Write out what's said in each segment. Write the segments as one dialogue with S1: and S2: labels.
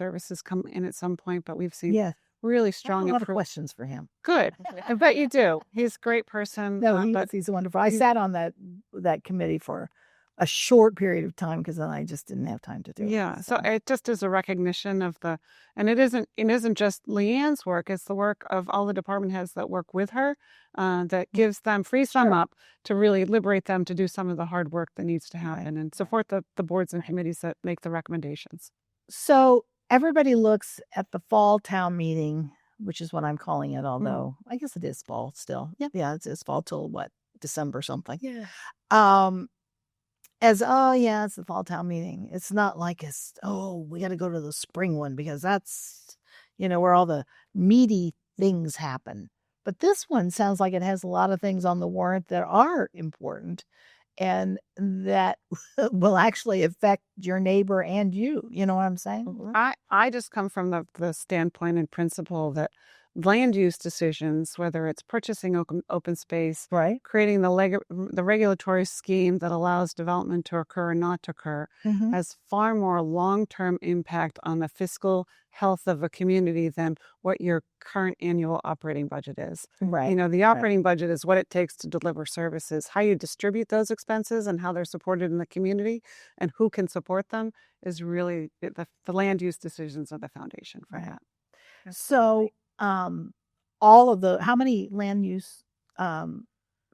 S1: services come in at some point, but we've seen
S2: Yes.
S1: really
S2: I have
S1: strong
S2: a lot of
S1: improvement.
S2: questions for him.
S1: Good. I bet you do. He's a great person.
S2: No,
S1: um,
S2: he's,
S1: but
S2: he's wonderful. I
S1: he's-
S2: sat on that that committee for a short period of time because then I just didn't have time to do it.
S1: yeah, so
S2: e
S1: it just is a recognition of the, and it isn't it isn't just Leanne's work. It's the work of all the department heads that work with her, uh, that gives them frees them
S2: Mm-hmm. Sure.
S1: up to really liberate them to do some of the hard work that needs to
S2: Right,
S1: happen and support the the boards and committees that make the recommendations.
S2: so everybody looks at the fall town meeting, which is what I'm calling it, although I guess it is fall still.
S1: Yep.
S2: Hmm. Yeah, it's, it's fall till what, December something.
S1: Yeah.
S2: Um as oh yeah, it's the fall town meeting. It's not like it's oh, we gotta go to the spring one because that's you know, where all the meaty things happen. But this one sounds like it has a lot of things on the warrant that are important and that will actually affect your neighbor and you. You know what I'm saying?
S1: I, I just come from the, the standpoint and principle that land use decisions, whether it's purchasing open, open space,
S2: Right.
S1: creating the, leg, the regulatory scheme that allows development to occur and not to occur,
S2: Mhm.
S1: has far more long term impact on the fiscal health of a community than what your current annual operating budget is.
S2: Right.
S1: You know, the operating budget is what it takes to deliver services. How you distribute those expenses and how they're supported in the community and who can support them is really it- the, the land use decisions are the foundation for
S2: Right.
S1: that.
S2: so, um, all of the how many land use um,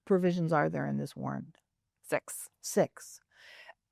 S2: provisions are there in this warrant?
S1: Six.
S2: Six.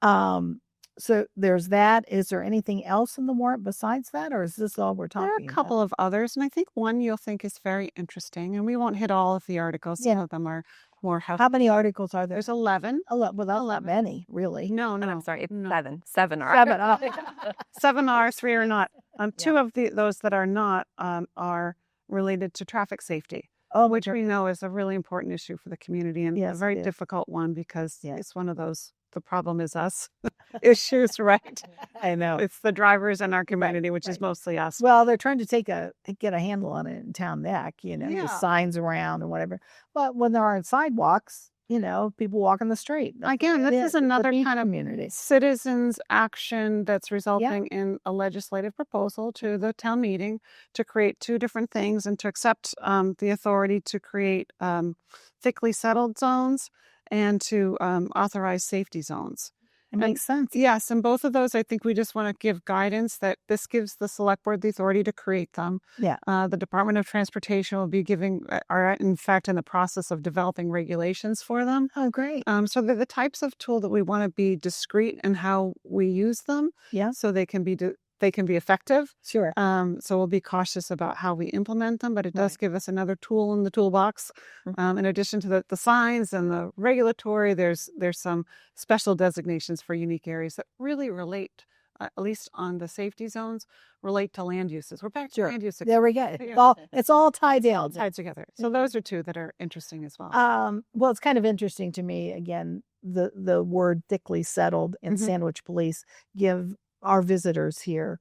S2: Um, so there's that. Is there anything else in the warrant besides that, or is this all we're talking?
S1: There are a couple of others, and I think one you'll think is very interesting. And we won't hit all of the articles. Some
S2: Yeah.
S1: of them are more
S2: About?
S1: house.
S2: How many articles are there?
S1: There's 11.
S2: a lot. Well, that's not
S1: Eleven.
S2: many, really.
S1: No,
S3: And
S1: no.
S3: I'm sorry, it's
S1: no.
S3: seven. Seven are.
S2: Seven, uh,
S1: Seven are, three are not. Um,
S2: Yeah.
S1: two of the, those that are not um, are related to traffic safety.
S2: Oh,
S1: which
S2: which
S1: we know is a really important issue for the community and
S2: Yes,
S1: a
S2: it
S1: very
S2: is.
S1: difficult one because
S2: Yes.
S1: it's one of those the problem is us issues, right?
S2: I know.
S1: It's the drivers in our community, which is
S2: Oh. right.
S1: mostly us.
S2: Well, they're trying to take a get a handle on it in town neck, you know,
S1: Yeah.
S2: just signs around and whatever. But when there aren't sidewalks, you know, people walk in the street. That's
S1: Again,
S2: what it
S1: this is
S2: It's a
S1: another
S2: beach
S1: kind of
S2: community.
S1: citizens action that's resulting in a legislative proposal to the town meeting to create two different things and to accept um, the authority to create um, thickly settled zones and to um, authorize safety zones.
S2: It makes sense.
S1: Yes, and both of those, I think we just want to give guidance that this gives the select board the authority to create them.
S2: Yeah.
S1: Uh, the Department of Transportation will be giving, uh, are in fact in the process of developing regulations for them.
S2: Oh, great.
S1: Um, so they're the types of tool that we want to be discreet in how we use them,
S2: Yeah,
S1: so they can be, de- they can be effective.
S2: sure.
S1: Um, so we'll be cautious about how we implement them, but it does
S2: Right.
S1: give us another tool in the toolbox.
S2: Mhm.
S1: Um, in addition to the, the signs and the regulatory, there's there's some special designations for unique areas that really relate, uh, at least on the safety zones, relate to land uses. We're back to
S2: Sure.
S1: land use
S2: There we go. Mm-hmm. It's
S1: Yeah.
S2: all it's all tied down.
S1: tied together. So those are two that are interesting as well.
S2: Um, well, it's kind of interesting to me. Again, the the word thickly settled and
S1: Mhm.
S2: sandwich police give our visitors here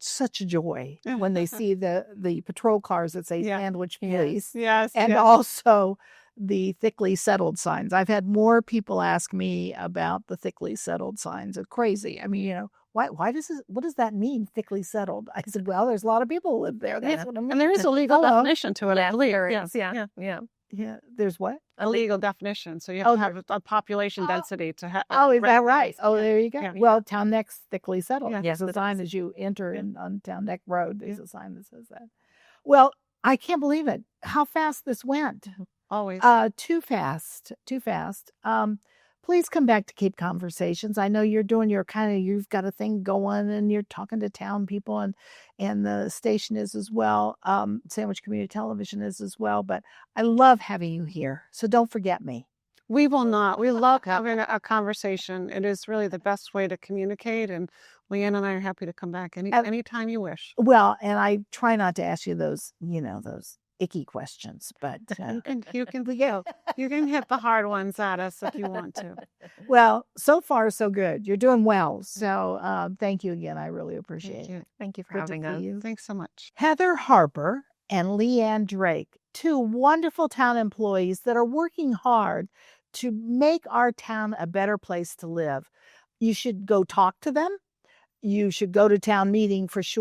S2: such joy when they see the the patrol cars that say
S1: Yeah.
S2: sandwich
S3: Yeah.
S2: police
S1: yes,
S2: and
S1: yes.
S2: also the thickly settled signs. I've had more people ask me about the thickly settled signs. It's crazy. I mean, you know, why why does this, what does that mean thickly settled? I said, well, there's a lot of people who live there. That's
S1: Yeah.
S2: what I mean.
S1: and there is a legal
S2: Hello.
S1: definition to it. I believe.
S3: there
S1: Yes,
S3: is, yeah,
S1: yeah.
S3: yeah.
S2: Yeah, there's what?
S1: A legal definition. So you have
S2: Oh,
S1: to have a, a population
S2: Oh.
S1: density to have.
S2: Oh, is that right? Oh,
S1: yeah.
S2: there you go.
S1: Yeah.
S2: Well, Town Neck's thickly settled.
S1: Yeah.
S2: There's
S3: Yes,
S2: a
S3: it
S2: sign
S3: is.
S2: as you enter
S1: Yeah.
S2: in, on Town Neck Road. There's a sign that says that. Well, I can't believe it. How fast this went.
S1: Mm-hmm. Always.
S2: Uh, too fast, too fast. Um, please come back to keep conversations. I know you're doing your kind of you've got a thing going and you're talking to town people and and the station is as well. Um, Sandwich Community Television is as well. But I love having you here. So don't forget me.
S1: We will not. We love having a- a conversation. It is really the best way to communicate. And Leanne and I are happy to come back any
S2: And-
S1: anytime you wish.
S2: Well, and I try not to ask you those, you know, those icky questions, but uh,
S1: And, and you can go. You can hit the hard ones at us if you want to.
S2: well, so far so good. You're doing well. So um, thank you again. I really
S1: Mm. Thank
S2: appreciate it.
S1: you.
S3: Thank you for
S2: Good to
S3: having
S2: see
S3: us.
S2: you.
S1: Thanks so much.
S2: Heather Harper and Leanne Drake, two wonderful town employees that are working hard to make our town a better place to live. You should go talk to them. you should go to town meeting for sure.